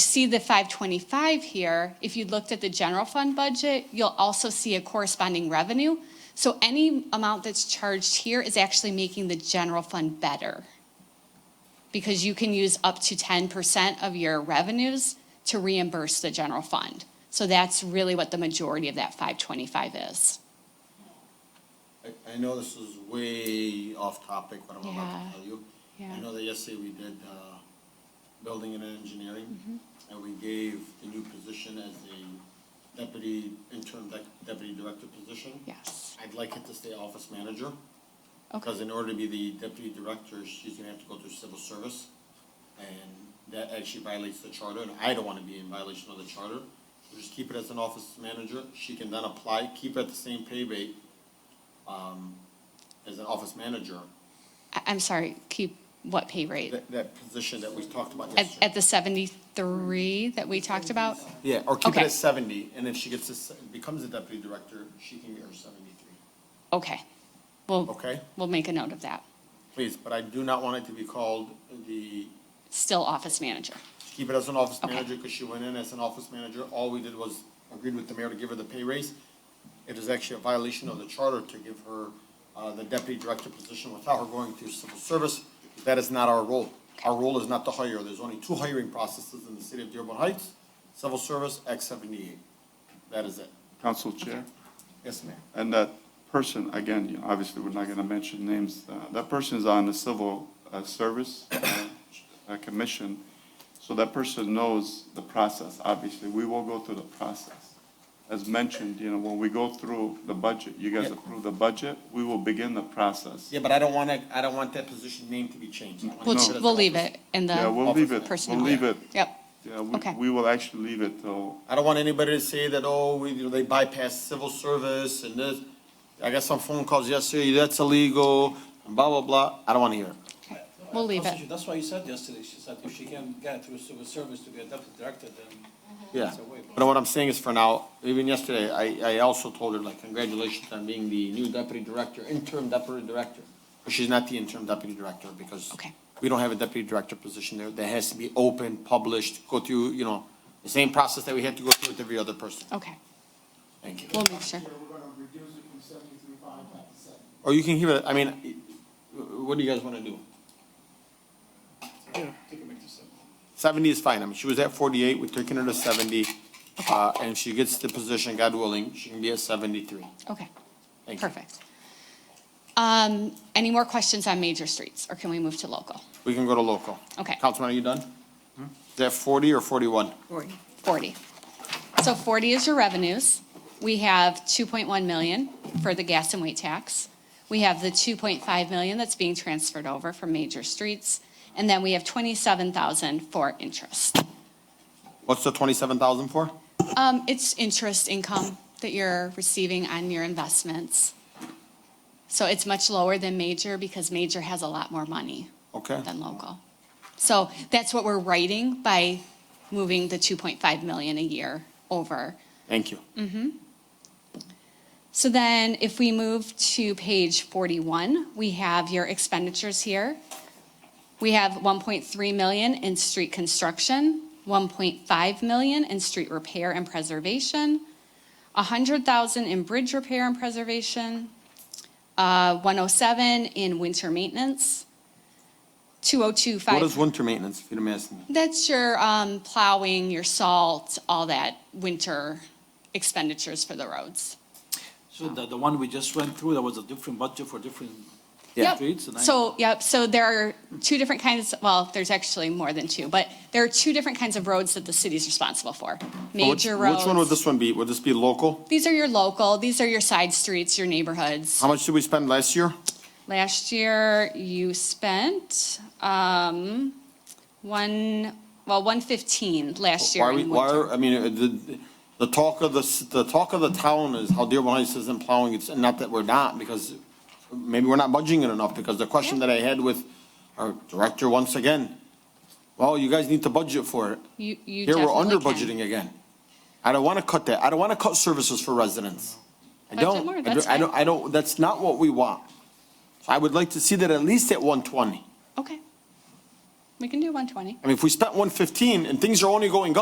see the 525 here, if you looked at the general fund budget, you'll also see a corresponding revenue. So any amount that's charged here is actually making the general fund better. Because you can use up to 10% of your revenues to reimburse the general fund. So that's really what the majority of that 525 is. I, I know this is way off topic, what I'm about Yeah. to tell you. Yeah. I know that yesterday we did, uh, building and Mm-hmm. engineering, and we gave the new position as the deputy, interim dec- deputy director position. Yes. I'd like it to stay office manager, Okay. because in order to be the deputy director, she's gonna have to go through civil service. And that actually violates the charter, and I don't wanna be in violation of the charter. So Just keep it as an office manager, she can then apply, keep it at the same pay rate, um, as an office manager. I- I'm sorry, keep what pay rate? That, that position that we talked about At, yesterday. at the 73 that we talked about? Yeah, or keep it Okay. at seventy, and if she gets, a se- becomes a deputy director, she can get her seventy-three. Okay. We'll, Okay. we'll make a note of that. Please, but I do not want it to be called the Still office manager. keep it as an office Okay. manager, because she went in as an office manager, all we did was agreed with the mayor to give her the pay raise. It is actually a violation of the charter to give her, uh, the deputy director position without her going through civil service. That is not our role. Our role is not to hire, there's only two hiring processes in the city of Dearborn Heights, civil service, Act seventy-eight. That is it. Council Chair, Yes, ma'am. and that person, again, you know, obviously, we're not going to mention names, uh, that person is on the Civil uh, Service uh, uh, Commission, so that person knows the process, obviously. We will go through the process. As mentioned, you know, when we go through the budget, you guys Yeah. approve the budget, we will begin the process. Yeah, but I don't wanna, I don't want that position name to be changed. I wanna We'll, keep it as an we'll leave office. it in Yeah, we'll the leave it, we'll personnel. leave it. Yep, Yeah, we- Okay. we will actually leave it till I don't want anybody to say that, oh, we, you know, they bypass civil service and this. I got some phone calls yesterday, that's illegal, and blah, blah, blah. I don't want to hear it. okay. We'll leave Constitution. it. That's why you said yesterday, she said if she can get it through civil service to be a deputy director, then Yeah. But what I'm saying is for now, even yesterday, I, I also told her like, congratulations on being the new deputy director, interim deputy director. But she's not the interim deputy director because Okay. we don't have a deputy director position there. That has to be open, published, go through, you know, the same process that we had to go through with every other person. Okay, Thank you. we'll make sure. Where we're gonna reduce it from seventy-three five back to seven. Or you can give it, I mean, what do you guys want to do? take it back to seven. 70 is fine. I mean, she was at 48, we're taking her to 70. Uh, And if she gets the position, God willing, she can be at 73. Okay, Thank you. perfect. Um, any more questions on major streets, or can we move to local? We can go to local. Okay. Councilman, are you done? Is that 40 or 41? 40. So 40 is your revenues. We have 2.1 million for the gas and weight tax. We have the 2.5 million that's being transferred over from major streets. And then we have 27,000 for interest. What's the 27,000 for? Um, It's interest income that you're receiving on your investments. So it's much lower than major because major has a lot more money Okay. than local. So that's what we're writing by moving the 2.5 million a year over. Thank you. Mm, So then, if we move to page 41, we have your expenditures here. We have 1.3 million in street construction, 1.5 million in street repair and preservation, 100,000 in bridge repair and preservation, uh, 107 in winter maintenance, What is 2025. winter maintenance, if you don't ask me? That's your um, plowing, your salt, all that winter expenditures for the roads. So the, the one we just went through, there was a different budget for different Yep. streets? and I- So, yep, so there are two different kinds, well, there's actually more than two, but there are two different kinds of roads that the city's responsible for. Which- Major roads. Which one would this one be? Would this be local? These are your local, these are your side streets, your neighborhoods. How much did we spend last year? Last year, you spent, um, one, well, one fifteen last year Why, we- in why, winter. are- I mean, uh, the, the talk of the, s- the talk of the town is how Dearborn Heights isn't plowing, it's not that we're not, because maybe we're not budging it enough, because the question that I had with our director once again, well, you guys need to budget for it. You, you Here, we're under definitely can. budgeting again. I don't want to cut that, I don't want to cut services for residents. I Budget don't, more, I that's don't- I don't, I don't, that's not what we want. I would like to see that at least at one twenty. Okay. We can do one twenty. I mean, if we spent one fifteen and things are only going up.